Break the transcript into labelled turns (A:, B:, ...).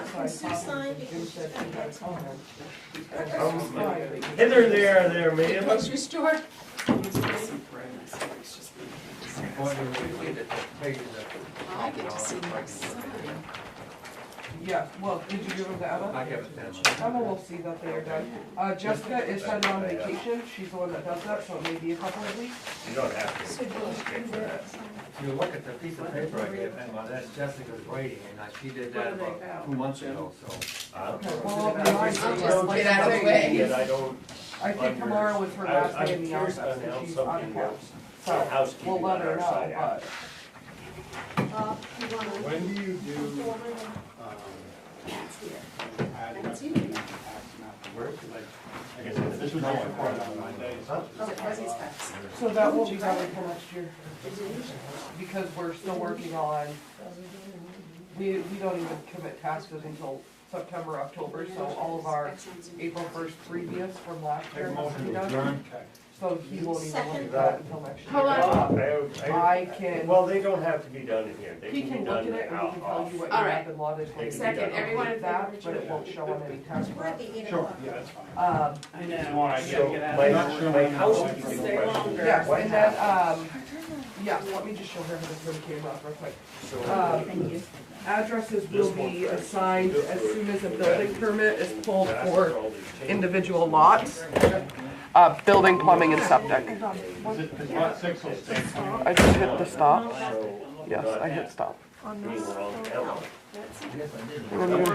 A: Can Sue sign? Because she's got that comment.
B: Um, Hither, there, there, ma'am.
A: Grocery store? I get to see my son.
C: Yeah, well, did you give them to Emma?
D: I have attention.
C: Emma will see that they are done. Uh, Jessica is sent on vacation, she's the one that does that, so it may be a couple of weeks.
B: You don't have
A: So,
B: to.
A: Bill, you were-
D: If you look at the piece of paper I gave him, well, that's Jessica's writing, and uh, she did that about two months ago, so.
B: Uh,
C: Well, it'll be nice.
A: I'll just
B: don't
A: get out of the
B: think
A: way.
B: that I don't,
C: I think tomorrow is her
B: I-
C: last day in
B: I'm
C: the
B: curious
C: office,
B: to
C: and
B: announce
C: she's on
B: something
C: couch.
B: else.
C: So,
B: Housekeeping
C: we'll let
B: on
C: her
B: our side
C: know, but,
B: after.
A: Uh, you wanna-
E: When do you do, um,
A: That's here.
E: ad
A: That's you.
E: nothing, act nothing? Like, like I said, this was my report on Monday. so
A: Oh, it was his fax.
C: so that will be probably till next year. Because we're still working on, we, we don't even commit taxes until September, October, so all of our April first previous from last
E: Take a
C: year must
E: motion
C: be
E: to
C: done.
E: adjourn.
C: So he won't even look at
A: Second.
C: that until next year.
F: Hold on.
B: Uh,
C: I can-
B: Well, they don't have to be done in here. They
C: He
B: can
C: can
B: be
C: look at
B: done
C: it and we can tell
B: out.
C: you what your
F: All right.
C: app and lot is.
B: They can be
F: Second,
B: done.
F: everyone in
C: That,
F: favor?
C: but it won't show on any tax
A: We're at
C: map.
A: the eight
E: Sure,
A: o'clock.
E: yeah, that's fine.
C: Um,
F: I know.
E: Tomorrow I
B: So,
E: gotta get out.
B: my,
E: Not sure
B: my
E: when I'm going
B: housekeeping
E: to-
F: Stay
B: question.
F: longer.
C: yes,
B: What
C: and then,
B: happened?
C: um, yes, let me just show her how this one came up real quick.
B: So,
C: Um, Addresses will be assigned as soon as a building permit is pulled
B: that's
C: for
B: all these changes.
C: individual lots. Uh, building, plumbing and septic.
E: Is it, is lot six will stay?
C: I just hit the stop.
B: So,
C: Yes, I hit stop.
B: we were all down.
A: That's it.
C: And then you